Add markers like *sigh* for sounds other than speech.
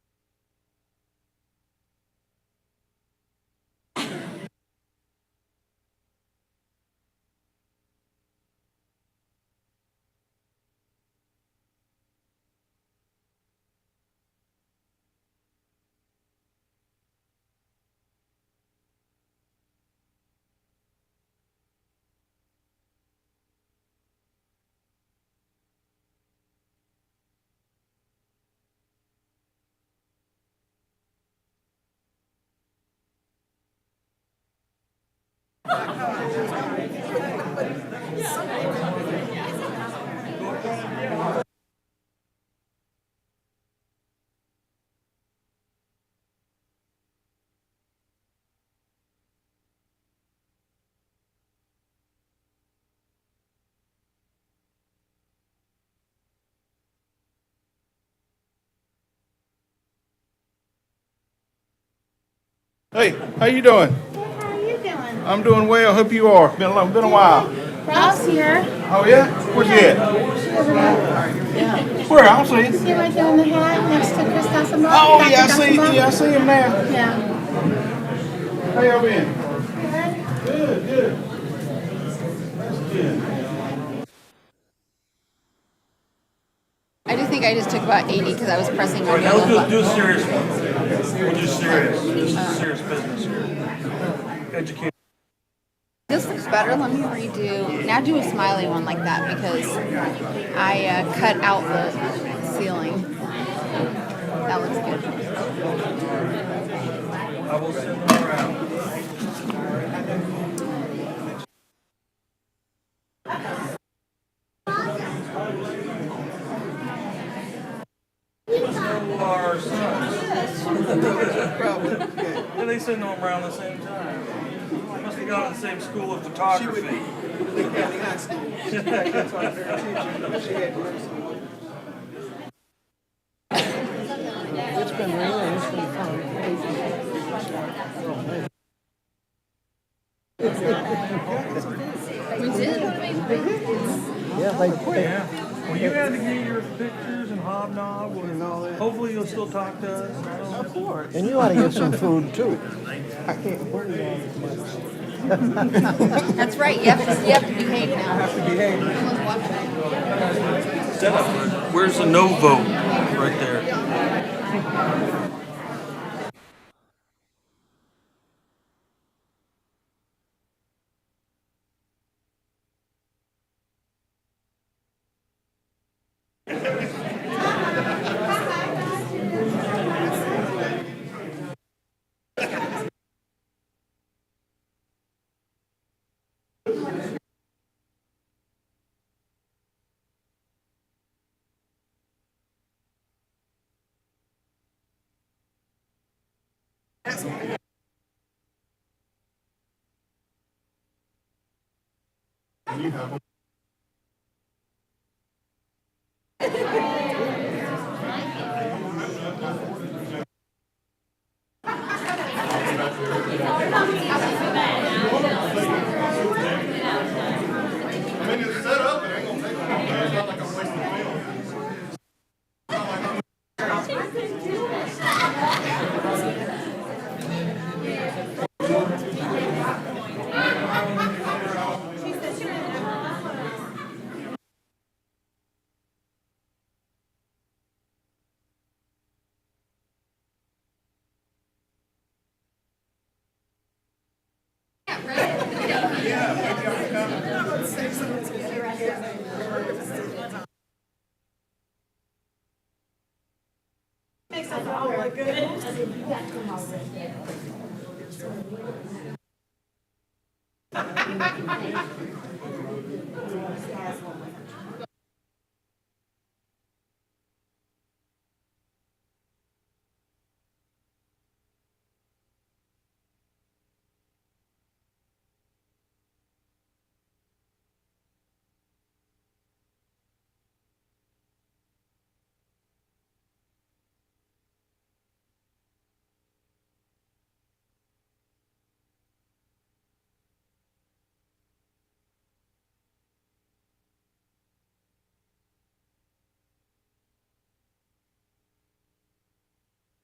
Hey, how you doing? How are you doing? I'm doing well. Hope you are. Been a long, been a while. Ralph's here. Oh yeah? Where's he at? Yeah. Where? I don't see him. See right there in the hat next to Chris Gossamer? Oh Dr. yeah, I see. Gossamer? Yeah, I see him now. Yeah. How y'all been? Good. Good, good. That's good. I do think I just took about 80 because I was pressing All my right, now yellow let's do, do button. a serious one. We'll do serious. This is serious business here. Educate. This looks better. Let me redo. Now do a smiley one like that because I uh, cut out the ceiling. That looks good. I will send them around. Our sons. Yeah, *laughs* they send them around the same time. Must have gone to the same school of photography. We did. Yeah. Well, you had to get your pictures and hobnob and all that. Hopefully you'll still talk to us. Of course. And you ought to get some food too. I can't work That's right. You have to, you have to behave now. have to behave. Where's the no vote? Right there.